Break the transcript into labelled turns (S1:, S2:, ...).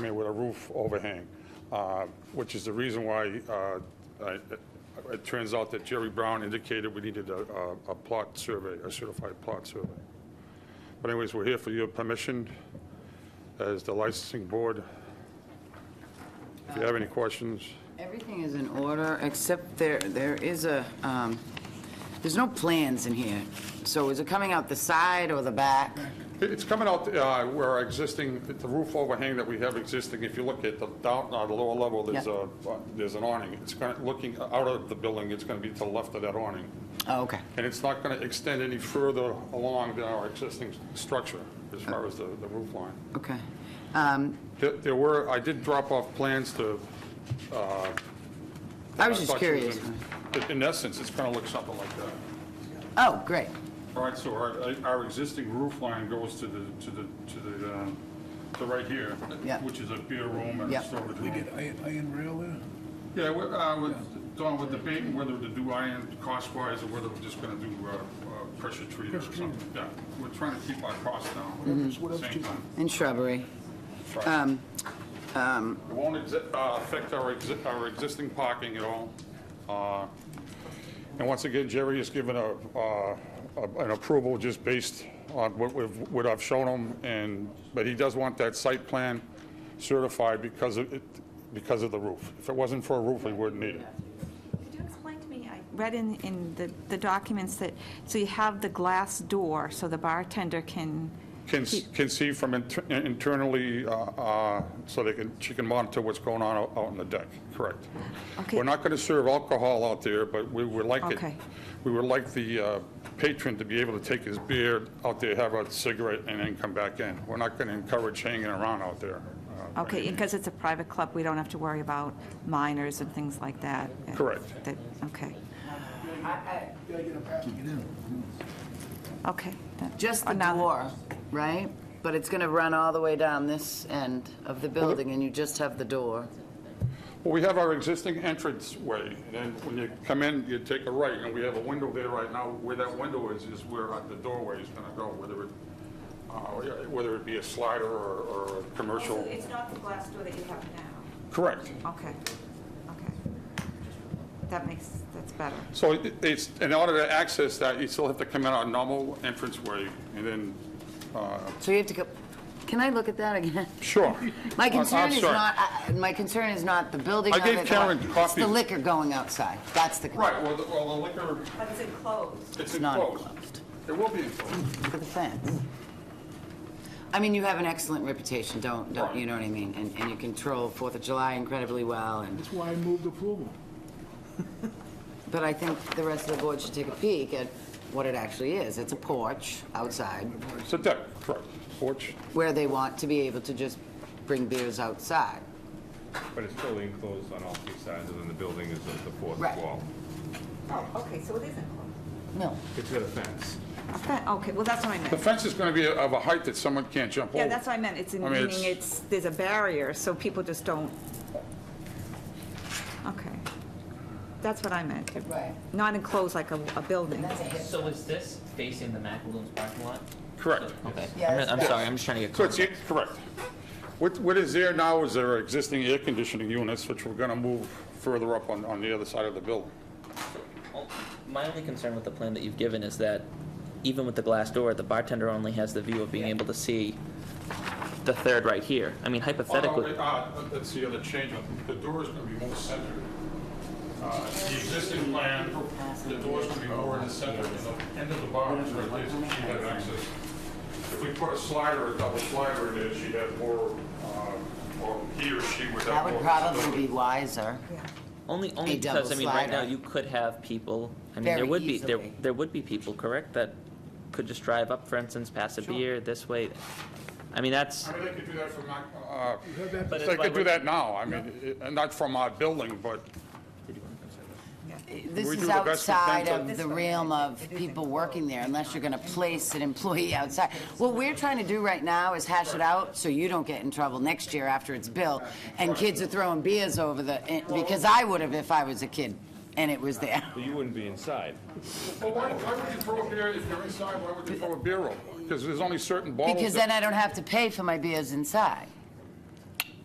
S1: mean, with a roof overhang, uh, which is the reason why uh, I- it turns out that Jerry Brown indicated we needed a a- a plot survey, a certified plot survey. But anyways, we're here for your permission as the licensing board. If you have any questions,
S2: Everything is in order, except there, there is a, um, there's no plans in here. So is it coming out the side or the back?
S1: It- it's coming out uh, where our existing, the roof overhang that we have existing, if you look at the down, uh, the lower level, there's
S2: Yeah.
S1: a, uh, there's an awning. It's kind of looking uh, out of the building, it's going to be to the left of that awning.
S2: Oh, okay.
S1: And it's not going to extend any further along than our existing structure as far as the the roof line.
S2: Okay. Um,
S1: There- There were, I did drop off plans to. uh,
S2: I was just
S1: thought you
S2: curious.
S1: in- In essence, it's going to look something like that.
S2: Oh, great.
S1: All right, so our, our existing roof line goes to the, to the, to the, um, to right here,
S2: Yeah.
S1: which is a beer room and
S2: Yeah.
S1: a storage
S3: We
S1: room.
S3: get iron, iron rail there?
S1: Yeah, we're, uh, with, Don, we're debating whether to do iron cost-wise or whether we're just gonna do, uh, uh, pressure treated or
S3: Pressure treated.
S1: something. Yeah, we're trying to keep our costs down
S3: Mhm.
S1: at the same time.
S2: And shrubbery. Um,
S1: It won't exi- uh, affect our exi- our existing parking at all. Uh, And once again, Jerry has given a, uh, a- an approval just based on what we've, what I've shown him, and, but he does want that site plan certified because of, it because of the roof. If it wasn't for a roof, we wouldn't need it.
S4: Could you explain to me, I read in, in the, the documents that, so you have the glass door, so the bartender can,
S1: Can, s- can see from inter- internally, uh, uh, so they can, she can monitor what's going on out out on the deck, correct.
S4: Okay.
S1: We're not going to serve alcohol out there, but we would like it,
S4: Okay.
S1: we would like the uh, patron to be able to take his beer out there, have a cigarette, and then come back in. We're not going to encourage hanging around out there. uh, by
S4: okay,
S1: any
S4: because it's a private club, we don't have to worry about minors and things like that.
S1: Correct.
S4: That- Okay, okay. that-
S2: Just the
S4: another-
S2: door, right? But it's going to run all the way down this end of the building, and you just have the door.
S1: Well, we have our existing entrance way, and then when you come in, you take a right, and we have a window there right now. Where that window is, is where uh, the doorway is going to go, whether it, uh, whether it be a slider or or a
S4: Oh, So
S1: commercial.
S4: it's not the glass door that you have now?
S1: Correct.
S4: Okay, okay. That makes, that's better.
S1: So it- it's, in order to access that, you still have to come in our normal entrance way, and then,
S2: So you have to go, can I look at that again?
S1: sure. Uh, Oh, I'm-
S2: My
S1: I'm
S2: concern is
S1: sorry.
S2: not, I- I- my concern is not the building
S1: I
S2: of
S1: gave
S2: it,
S1: Karen
S2: or- It's
S1: copies.
S2: the liquor going outside. That's the concern.
S1: Right, well, the well, the liquor,
S4: But it's enclosed.
S1: it's
S2: It's not
S1: enclosed.
S2: enclosed.
S1: It will be enclosed.
S2: Look at the fence. I mean, you have an excellent reputation, don't, don't, you know what I mean? And, and you control Fourth of July incredibly well, and,
S3: That's why I moved approval.
S2: but I think the rest of the board should take a peek at what it actually is. It's a porch outside
S1: It's a deck, correct, porch.
S2: where they want to be able to just bring beers outside.
S5: But it's totally enclosed on all three sides, and then the building is the the fourth
S2: Right.
S5: wall.
S4: Oh, okay, so it is enclosed.
S2: No.
S5: It's got a fence.
S4: Okay, Okay, well, that's what I meant.
S1: The fence is going to be of a height that someone can't jump over.
S4: Yeah, that's what I meant, it's, in-
S1: I mean,
S4: meaning it's, there's a barrier, so people just don't, okay. That's what I meant.
S2: Right.
S4: Not enclosed like a, a building.
S6: So is this facing the Macaroons parking lot?
S1: Correct.
S6: Okay,
S2: Yeah,
S6: I'm-
S2: it's-
S6: I'm sorry, I'm just trying to get
S1: So it's,
S6: clarity.
S1: correct. What, what is there now is there are existing air conditioning units, which we're going to move further up on, on the other side of the building.
S6: My only concern with the plan that you've given is that even with the glass door, the bartender only has the view of being able to see the third right here. I mean hypothetically,
S1: Uh, That's the other change, the door is going to be more centered. Uh, The existing plan, the door's going to be more in the center, and the end of the bar is right there, so she had access. If we put a slider, a double slider in there, she'd have more, uh, or he or she would have more.
S2: That would probably be wiser.
S4: Yeah.
S6: only, only
S2: A double
S6: because, I mean, right now,
S2: slider.
S6: you could have people, I mean,
S2: Very
S6: there would be, there,
S2: easily.
S6: there would be people, correct, that could just drive up, for instance, pass a beer this way. I mean, that's,
S1: I mean, they could do that from, uh,
S6: But it's
S1: they
S6: why
S1: could do
S6: we're-
S1: that now, I mean, it- and not from our building, but
S2: This
S1: We do
S2: is
S1: the best we can
S2: outside
S1: to-
S2: of the realm of people working there, unless you're gonna place an employee outside. What we're trying to do right now is hash it out, so you don't get in trouble next year after it's built, and kids are throwing beers over the, eh, because I would've if I was a kid, and it was there.
S5: But you wouldn't be inside.
S1: Well, why, why would you throw a beer, if you're inside, why would you throw a beer over? Because there's only certain bottles.
S2: Because
S1: that-
S2: then I don't have to pay for my beers inside.